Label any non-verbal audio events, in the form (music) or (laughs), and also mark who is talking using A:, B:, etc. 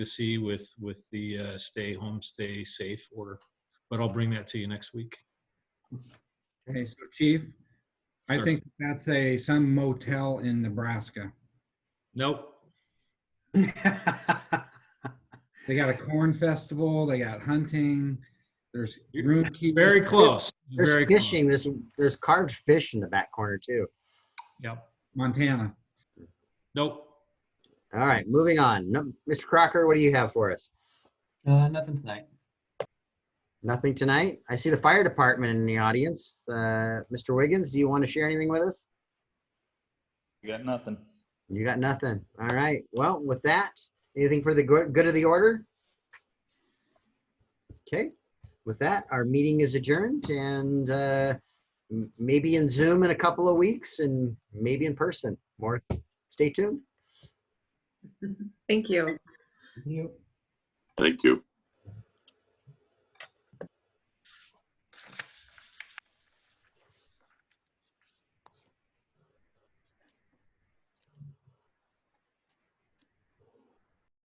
A: to see with, with the uh, stay home, stay safe order. But I'll bring that to you next week.
B: Okay, so Chief, I
A: Sir.
B: think that's a, some motel in
A: (laughs)
B: Nebraska.
A: Nope.
B: They got a corn festival, they got hunting, there's
A: You're
B: room keeping.
A: Very close. Very
C: There's
A: close.
C: fishing, there's, there's carved fish in the back corner too.
A: Yep.
B: Montana.
A: Nope.
C: All right, moving on. No- Mr. Crocker, what do you have for us?
D: Uh, nothing tonight.
C: Nothing tonight. I see the fire department in the audience. Uh, Mr. Wiggins, do you want to share anything with us?
E: Got nothing.
C: You got nothing. All right. Well, with that, anything for the go- good of the order? Okay. With that, our meeting is adjourned and uh, m- maybe in Zoom in a couple of weeks and maybe in person. More, stay tuned.
F: Thank you.
G: Thank you.